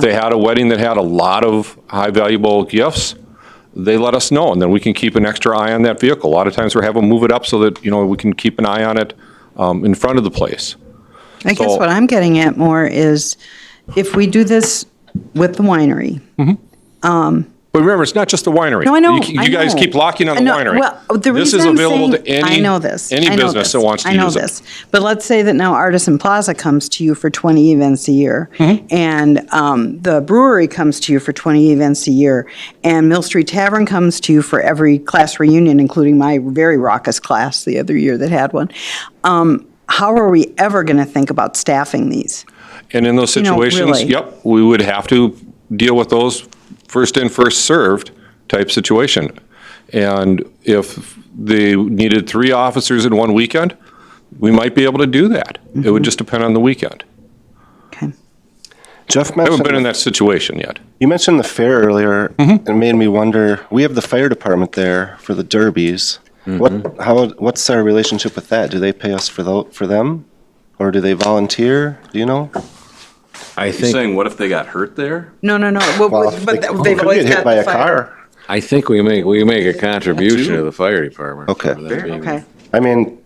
they had a wedding that had a lot of high valuable gifts, they let us know, and then we can keep an extra eye on that vehicle. A lot of times we're having them move it up so that, you know, we can keep an eye on it um, in front of the place. I guess So- what I'm getting at more is if we do this with the winery. But remember, it's not just the winery. No, I know, You- You, I guys know. keep locking on I the know, winery. Well, the this reason is I'm available saying- to any I know this. any I know business this. that wants to I know use it. this. But let's say that now Artisan Plaza comes to you for 20 events a year, Mm-hmm. and um, the brewery comes to you for 20 events a year, and Mill Street Tavern comes to you for every class reunion, including my very raucous class the other year that had one. Um, how are we ever going to think about staffing these? And in those know, situations, really. yep, we would have to deal with those first in, first served type situation. And if they needed three officers in one weekend, we might be able to do that. It Mm-hmm. would just depend on the weekend. Okay. Jeff I haven't been in mentioned, that situation yet. you mentioned the fair earlier. It made me wonder, we have the fire department there for the derbies. What, how, what's our relationship with that? Do they pay us for tho, for them? Or do they volunteer? Do you know? I You're think, saying what if they got hurt there? No, no, no. Well, Well, but they could they've get always hit got by the a fire- car. I think we make, we make a contribution to the fire department. Okay. for them being- Okay. I mean,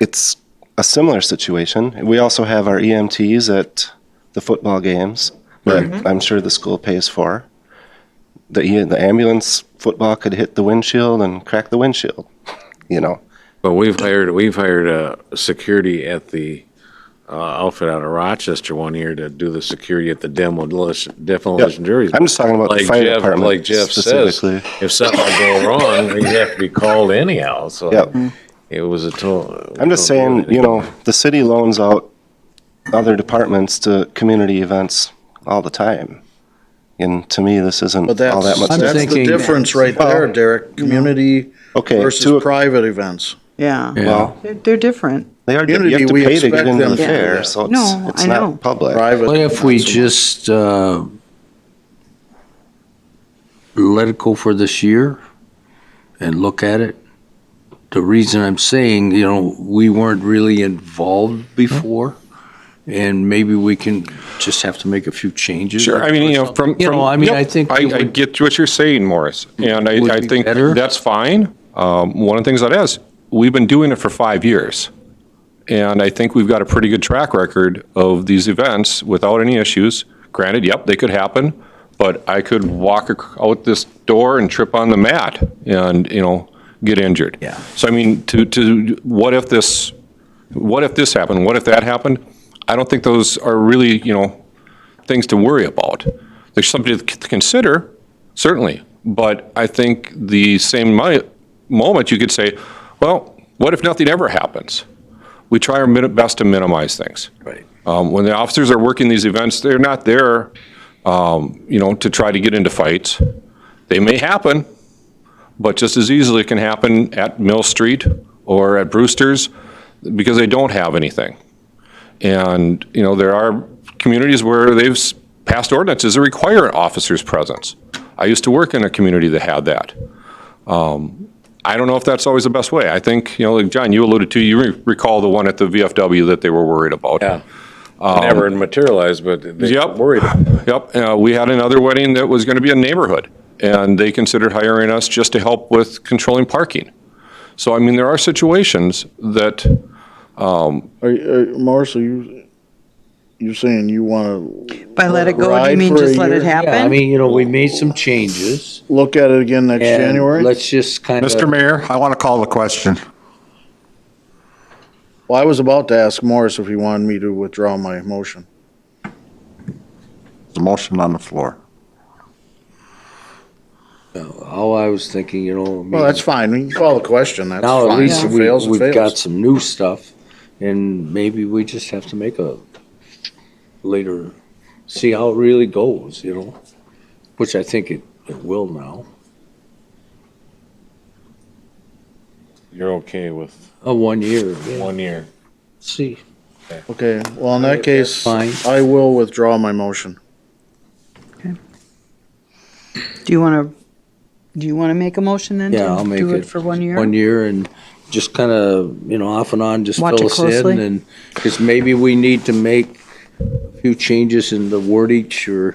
it's a similar situation. We also have our EMTs at the football games that Mm-hmm. I'm sure the school pays for. The, e- the ambulance football could hit the windshield and crack the windshield, you know? But we've hired, we've hired uh security at the uh, outfit out of Rochester one year to do the security at the demolition, demolition juries. I'm just talking about the Like fire Jeff- department Like Jeff says, specifically. if something go wrong, you have to be called anyhow, so. Yep. It was a total. I'm just saying, you know, the city loans out other departments to community events all the time. And to me, this isn't all But that's, that much. that's the thinking- difference right there, Derek, community Okay, to a- versus private events. Yeah. Well, They're, they're different. they are, you Community, have to we pay to get expect into them the to do fair, that. so it's, No, it's I know. not public. Private. What if we just uh, let it go for this year and look at it? The reason I'm saying, you know, we weren't really involved before, and maybe we can just have to make a few changes. Sure, I mean, you know, from. You know, from- I mean, yep, I think I, it I would- get what you're saying, Morris, and Would I, I be think better. that's fine. Um, one of the things that is, we've been doing it for five years. And I think we've got a pretty good track record of these events without any issues. Granted, yep, they could happen, but I could walk ac- out this door and trip on the mat and, you know, get injured. Yeah. So I mean, to, to, what if this, what if this happened? What if that happened? I don't think those are really, you know, things to worry about. There's something to c- to consider, certainly, but I think the same mi- moment you could say, well, what if nothing ever happens? We try our min- best to minimize things. Right. Um, When the officers are working these events, they're not there, um, you know, to try to get into fights. They may happen, but just as easily can happen at Mill Street or at Brewster's because they don't have anything. And, you know, there are communities where they've s- passed ordinances that require an officer's presence. I used to work in a community that had that. Um, I don't know if that's always the best way. I think, you know, like John, you alluded to, you re- recall the one at the VFW that they were worried about. Yeah. Never um, materialized, but they Yep. worried about it. Yep, uh, we had another wedding that was going to be a neighborhood, and they considered hiring us just to help with controlling parking. So, I mean, there are situations that, Are, are, Morris, are uh, you, you saying you want to By let it go, do you Ride mean for a just let year? it happen? Yeah, I mean, you know, we made some changes. look at it again next and January? Let's just kind of. Mr. Mayor, uh, I want to call the question. Well, I was about to ask Morris if he wanted me to withdraw my motion. The motion on the floor. All oh, I was thinking, you know. I Well, mean, that's fine. We can call the question. That's Now at fine. least If it we, fails, it we've got fails. some new stuff, and maybe we just have to make a later, see how it really goes, you know? Which I think it, it will now. You're okay with A one year, yeah. one year. see. Okay, well, in that case, fine. I will withdraw my motion. Do you want to, do you want to make a motion then? to Yeah, I'll make Do it it for one year? One year and just kind of, you know, off and on, just Watch fill it us in closely. and, because maybe we need to make a few changes in the wordage or